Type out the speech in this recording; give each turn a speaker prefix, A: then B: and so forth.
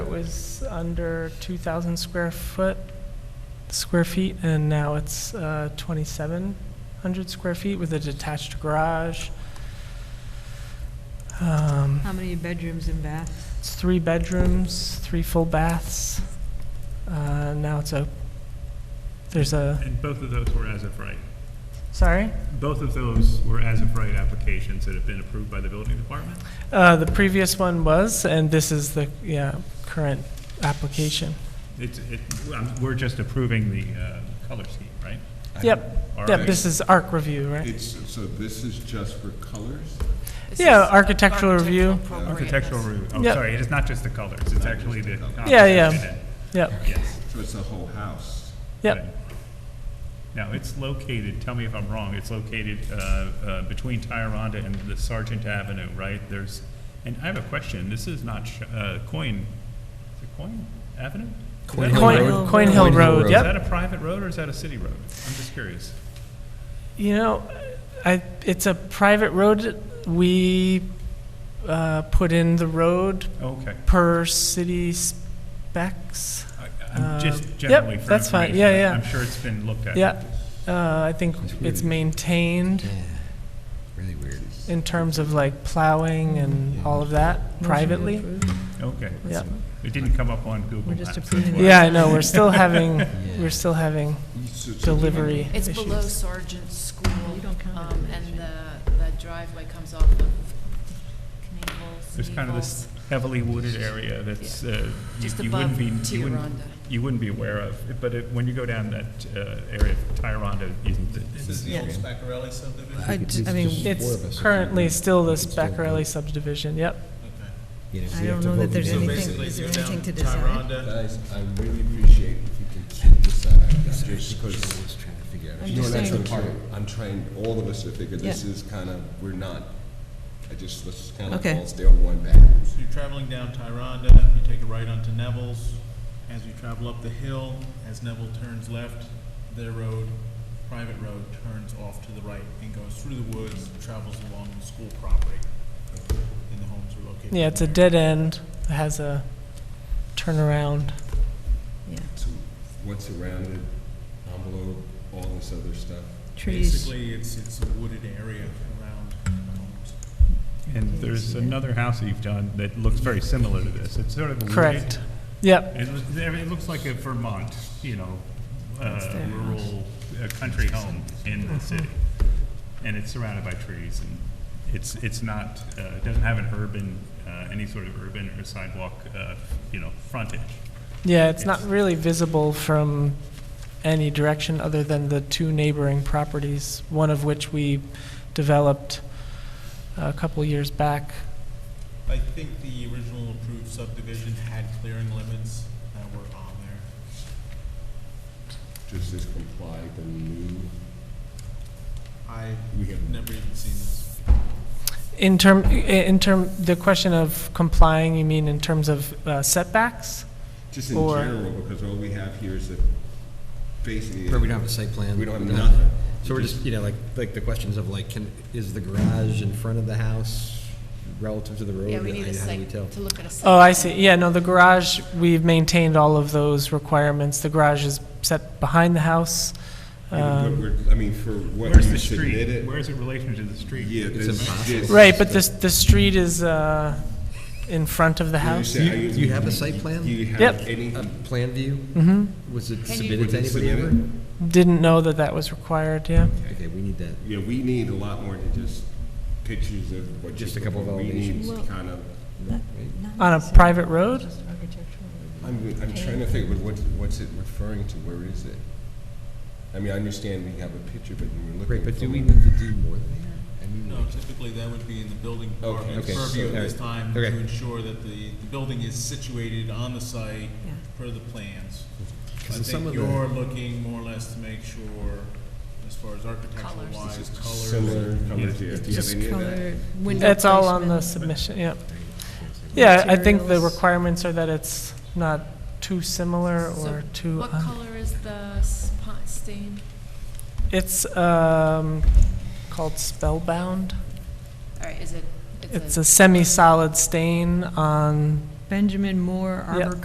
A: was under 2,000 square foot, square feet, and now it's uh, 2,700 square feet with a detached garage. Um,
B: How many bedrooms and baths?
A: It's three bedrooms, three full baths. Uh, Now it's a, there's a,
C: And both of those were as of right.
A: sorry?
C: Both of those were as of right applications that have been approved by the building department?
A: Uh, The previous one was, and this is the, yeah, current application.
C: It's, it, um, we're just approving the uh, color scheme, right?
A: Yep,
C: All
A: yep,
C: right.
A: this is ARC review, right?
D: It's, so this is just for colors?
A: Yeah, architectural review.
C: Architectural review, oh,
A: Yep.
C: sorry, it's not just the colors, it's actually the.
A: Yeah, yeah.
C: composition
A: Yep,
C: and- Yes.
D: So it's the whole house?
A: yep.
C: right. Now, it's located, tell me if I'm wrong, it's located uh, uh, between Tyranda and the Sergeant Avenue, right? There's, and I have a question, this is not Sh- uh, Coin, is it Coin Avenue? Is that
A: Coin,
C: a-
B: Road.
A: Coin Hill
B: Coin Hill
A: Road,
D: Road.
C: Is that
A: yep.
C: a private road or is that a city road? I'm just curious.
A: You know, I, it's a private road. We uh, put in the road
C: Okay.
A: per city specs.
C: I- I'm
A: Uh,
C: just
A: yep,
C: generally for
A: that's fine.
C: information,
A: Yeah,
C: I'm-
A: yeah.
C: I'm sure it's been looked at.
A: Yeah, uh, I think it's maintained
E: Yeah, really weird.
A: in terms of like plowing and all of that privately.
C: Okay.
A: Yeah,
C: It didn't come up on Google
B: We're just
C: Maps. that's
B: approving
C: why.
B: it.
A: yeah, I know, we're still having, we're still having
D: So- so-
A: delivery
F: It's below
A: issues.
F: Sergeant's School,
B: You don't count it
F: um,
B: as
F: and
B: an
F: the, the driveway comes off of Knievel's.
C: There's kind of this heavily wooded area that's, uh, you
F: Just
C: you
F: above
C: wouldn't be, you wouldn't,
F: Tioronda.
C: you wouldn't be aware of. But it- when you go down that uh, area of Tyranda, you-
D: This is the old Spacarelli subdivision?
B: I d- I mean,
A: It's currently still this Beckerelli subdivision, yep.
B: I don't know that there's
D: So
B: anything,
D: basically,
B: is there
D: go
B: anything to
D: down
B: decide?
D: Tyranda,
E: Guys, I really appreciate if you can keep this out, just because,
G: trying to figure out.
B: I'm
D: no,
B: just
D: that's the
B: saying,
D: part, I'm trying, all of us to figure this
B: Yeah.
D: is kind of, we're not, I just, let's just kind of
B: Okay.
D: all stay on one path.
H: So you're traveling down Tyranda, you take a right onto Neville's. As you travel up the hill, as Neville turns left, their road, private road, turns off to the right and goes through the woods, travels along the school property. And the homes are located.
A: Yeah, it's a dead end, it has a turnaround.
B: yeah,
D: So what's around it, envelope, all this other stuff?
B: trees.
H: Basically, it's, it's a wooded area around the homes.
C: and there's another house that you've done that looks very similar to this. It's sort of a wooded.
A: Correct. Yep,
C: It looks, it looks like a Vermont, you know,
B: That's
C: uh,
B: their house.
C: rural, uh, country home in the city. And it's surrounded by trees and it's, it's not, uh, it doesn't have an urban, uh, any sort of urban or sidewalk, uh, you know, frontage.
A: yeah, it's not really visible from any direction other than the two neighboring properties, one of which we developed a couple years back.
H: I think the original approved subdivision had clearing limits that were on there.
D: Does this comply with the new,
H: I
D: we have
H: never even seen this.
A: In term, in term, the question of complying, you mean in terms of uh, setbacks?
D: Just in
A: Or-
D: general, because all we have here is a, basically.
G: Where we don't have a site plan.
D: We don't have nothing.
G: So we're just, you know, like, like the questions of like, can, is the garage in front of the house relative to the road?
F: Yeah, we need
G: How
F: a
G: do we
F: site,
G: tell?
F: to look at a site.
A: Oh, I see, yeah, no, the garage, we've maintained all of those requirements. The garage is set behind the house.
D: Yeah, but
A: Um,
D: we're- I mean, for what
C: Where's
D: you
C: the street?
D: submitted.
C: Where's it relation to the street?
D: Yeah,
G: It's
D: this,
G: impossible.
D: this.
A: Right, but this, the street is uh, in front of the
D: When you
A: house?
D: say-
G: Do you- do you have a site plan?
D: Do you have
A: Yep.
D: any?
G: A plan view?
A: hmm
G: Was it
F: Can you-
G: submitted to
D: Was it
G: anybody ever?
D: submitted?
A: Didn't know that that was required, yeah.
G: Okay, we need that.
D: Yeah, we need a lot more than just pictures of what.
G: Just
D: you
G: a couple of
D: propose.
G: elevations.
D: We need kind of,
A: On a private road?
D: I'm, I'm trying to figure, but what's, what's it referring to? Where is it? I mean, I understand we have a picture, but when you're looking.
G: Right, but do
D: for-
G: we need to do more than that? I mean,
H: No, typically that would be in the building
D: Okay,
H: department's
D: okay,
H: purview
D: so-
H: at this time to
G: okay.
H: ensure that the, the building is situated on the site
B: Yeah.
H: per the plans. I
G: 'Cause in some
H: think
G: of the-
H: you're looking more or less to make sure, as far as architectural
F: Colors.
H: wise,
D: Similar
H: colors.
D: colors here. Do you have
B: Just
D: any of that?
B: color, window
A: It's all on the
B: placement.
A: submission, yeah. Yeah, I think the
B: Materials.
A: requirements are that it's not too similar
F: So
A: or too,
F: What
A: un-
F: color is the spot stain?
A: it's um, called spellbound.
F: All right, is it?
A: It's a semi-solid stain on
B: Benjamin Moore,
A: Yeah.
B: Arbor